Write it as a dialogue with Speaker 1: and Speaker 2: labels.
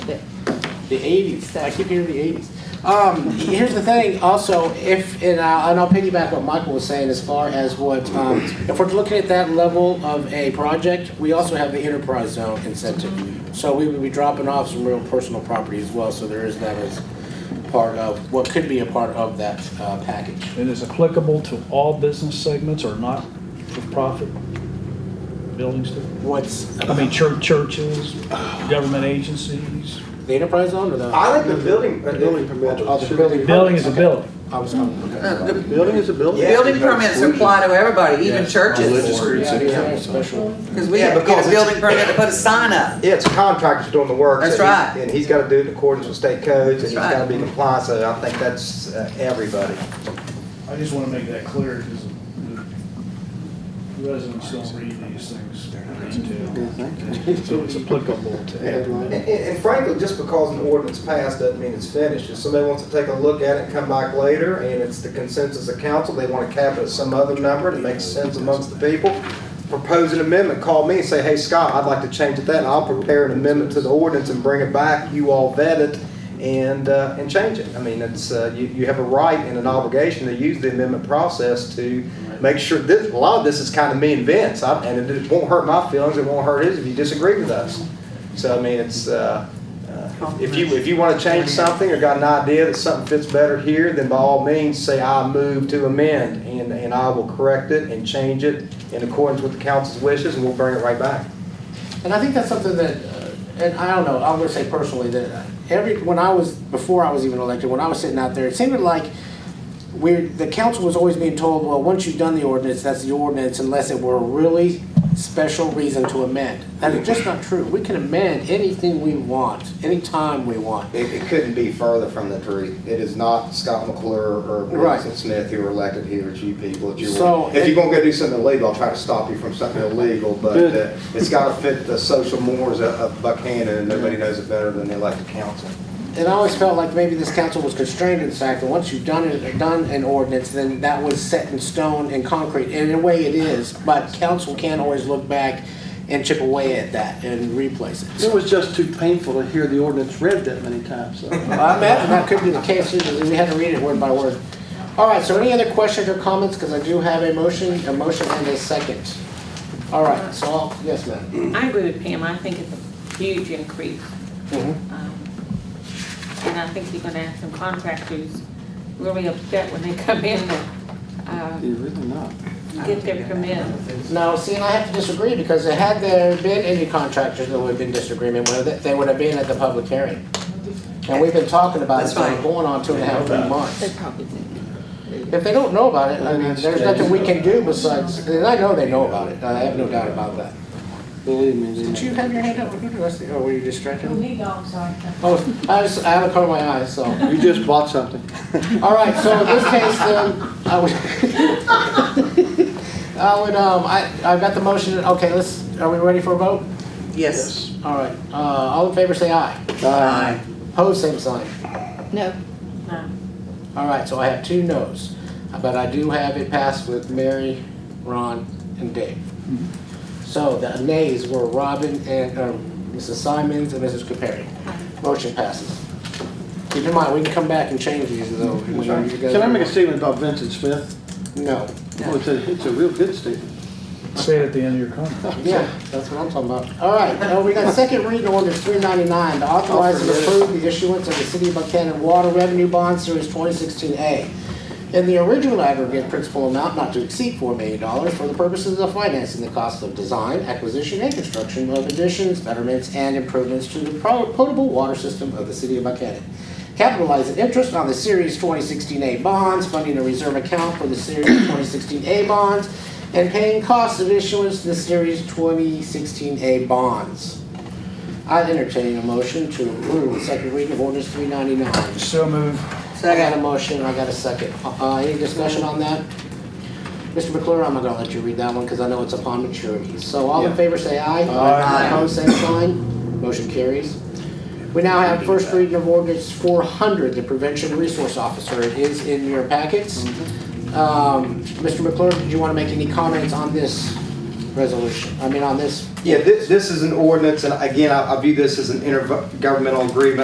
Speaker 1: that
Speaker 2: The 80s. I keep hearing the 80s. Um, here's the thing. Also, if and I'll, and I'll piggyback what Michael was saying as far as what um, if we're looking at that level of a project, we also have the enterprise zone incentive. So we would be dropping off some real personal property as well. So there is that as part of what could be a part of that uh, package.
Speaker 3: It is applicable to all business segments or not for profit buildings, too?
Speaker 2: What's
Speaker 3: I mean, chur- churches, government agencies.
Speaker 2: the enterprise zone or the
Speaker 4: I think the building. Building permit.
Speaker 2: Oh, the building.
Speaker 3: Building is a building.
Speaker 2: I was okay.
Speaker 1: The
Speaker 4: Building is a building.
Speaker 1: building permits apply to everybody, even churches,
Speaker 2: Yeah, we have a special.
Speaker 1: because we
Speaker 4: Yeah,
Speaker 1: have to get
Speaker 4: because it's-
Speaker 1: a building permit to put a sign up.
Speaker 4: Yeah, it's contractors doing the work.
Speaker 1: That's
Speaker 4: so he's-
Speaker 1: right.
Speaker 4: And he's gotta do it in accordance with state codes, and he's
Speaker 1: That's right.
Speaker 4: gotta be compliant, so I think that's uh, everybody.
Speaker 5: I just want to make that clear because the residents don't read these things in detail.
Speaker 3: So it's applicable to
Speaker 4: And,
Speaker 3: everyone.
Speaker 4: and- and frankly, just because an ordinance passed doesn't mean it's finished. If somebody wants to take a look at it and come back later, and it's the consensus of council, they want to cap it at some other number that makes sense amongst the people, propose an amendment, call me and say, hey, Scott, I'd like to change it that, and I'll prepare an amendment to the ordinance and bring it back, you all vet it, and, uh, and change it. I mean, it's, uh, you, you have a right and an obligation to use the amendment process to make sure, this, a lot of this is kind of me and Vince, I- and it won't hurt my feelings, it won't hurt his if you disagree with us. So I mean, it's, uh, uh, if you, if you want to change something or got an idea that something fits better here, then by all means, say, I move to amend, and, and I will correct it and change it in accordance with the council's wishes, and we'll bring it right back.
Speaker 2: And I think that's something that, uh, and I don't know, I'm gonna say personally, that every, when I was, before I was even elected, when I was sitting out there, it seemed like we're, the council was always being told, well, once you've done the ordinance, that's the ordinance, unless it were a really special reason to amend. And it's just not true. We can amend anything we want, anytime we want.
Speaker 6: It, it couldn't be further from the truth. It is not Scott McClure or
Speaker 2: Right.
Speaker 6: Wilson Smith who were elected here, it's you people. It's your-
Speaker 2: So-
Speaker 6: If you're gonna go do something illegal, I'll try to stop you from something illegal, but uh, it's gotta fit the social mores of- of Buchanan, and nobody knows it better than the elected council.
Speaker 2: And I always felt like maybe this council was constrained in the fact that once you've done it, done an ordinance, then that was set in stone and concrete, and in a way it is, but council can always look back and chip away at that and replace it.
Speaker 7: It was just too painful to hear the ordinance read that many times, so.
Speaker 2: I imagine that could be the case, usually we had to read it word by word. All right, so any other questions or comments, because I do have a motion, a motion and a second. All right, so, I'll- yes, ma'am.
Speaker 8: I agree with Pam, I think it's a huge increase.
Speaker 2: Mhm.
Speaker 8: Um, And I think you're gonna have some contractors really upset when they come in to uh,
Speaker 7: You're really not.
Speaker 8: get their permits.
Speaker 2: No, see, and I have to disagree, because had there been any contractors that would have been disagreement with it, they would have been at the public hearing. And we've been talking about it,
Speaker 1: That's
Speaker 2: so
Speaker 1: fine.
Speaker 2: going on two and a half, three
Speaker 8: They
Speaker 2: months.
Speaker 8: probably didn't.
Speaker 2: If they don't know about it, I mean, there's nothing we can do besides, and I know they know about it, I have no doubt about that.
Speaker 7: Believe me, they
Speaker 2: Did you have your hand up? Who did I see? Oh, were you distracted?
Speaker 8: me I'm sorry.
Speaker 2: Oh, I was, I had a cover my eyes, so.
Speaker 7: You just bought something.
Speaker 2: All right, so in this case, then, I would, I would, um, I, I've got the motion, okay, let's, are we ready for a vote?
Speaker 1: Yes.
Speaker 2: All right, uh, all in favor, say aye.
Speaker 1: Aye.
Speaker 2: Pose same sign.
Speaker 8: No.
Speaker 2: All right, so I have two no's, but I do have it passed with Mary, Ron, and Dave. So the nays were Robin and, uh, Mrs. Simons and Mrs. Capari. Motion passes. Keep in mind, we can come back and change these though. when you guys-
Speaker 7: Can I make a statement about Vincent Smith?
Speaker 2: No.
Speaker 7: Well, it's a, it's a real good statement.
Speaker 3: Say it at the end of your comment.
Speaker 2: Yeah, that's what I'm talking about. All right, now we got second reading order three ninety-nine, to authorize and approve the issuance of the City of Buchanan Water Revenue Bond Series twenty sixteen A in the original aggregate principal amount not to exceed four million dollars for the purposes of financing the cost of design, acquisition, and construction of additions, betterments, and improvements to the pro- potable water system of the City of Buchanan. Capitalizing interest on the Series twenty sixteen A bonds, funding a reserve account for the Series twenty sixteen A bonds, and paying costs of issuance to the Series 2016A bonds. I entertain a motion to approve the second reading of ordinance 399.
Speaker 3: So move.
Speaker 2: I got a motion, I got a second. Uh, Any discussion on that? Mr. McClure, I'm not gonna let you read that one because I know it's upon maturity. So all in favor, say aye.
Speaker 3: Aye.
Speaker 2: Opposed, same sign. Motion carries. We now have first reading of ordinance 400, the prevention resource officer. It is in your packets. Um, Mr. McClure, did you want to make any comments on this? resolution, I mean, on this
Speaker 4: Yeah, this, this is an ordinance, and again, I I view this as an intergovernmental agreement